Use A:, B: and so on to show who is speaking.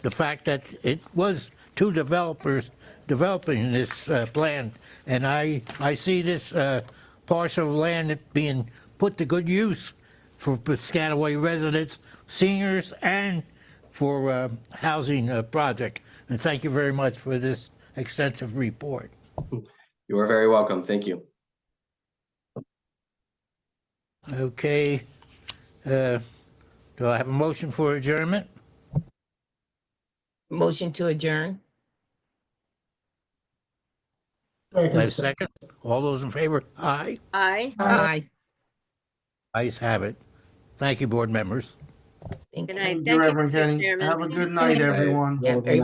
A: the fact that it was two developers developing this uh, plan, and I, I see this uh, parcel of land being put to good use for Piscataway residents, seniors, and for uh, housing uh, project. And thank you very much for this extensive report.
B: You are very welcome. Thank you.
A: Okay, uh, do I have a motion for adjournment?
C: Motion to adjourn?
A: Do I have a second? All those in favor? Aye.
D: Aye.
C: Aye.
A: Ayes have it. Thank you, board members.
C: Thank
D: Good
C: you.
D: night.
E: Thank
D: Thank
E: you,
D: you,
E: Reverend
D: Mr.
E: Kenny.
D: Chairman.
E: Have a good night, everyone.
C: Yeah, very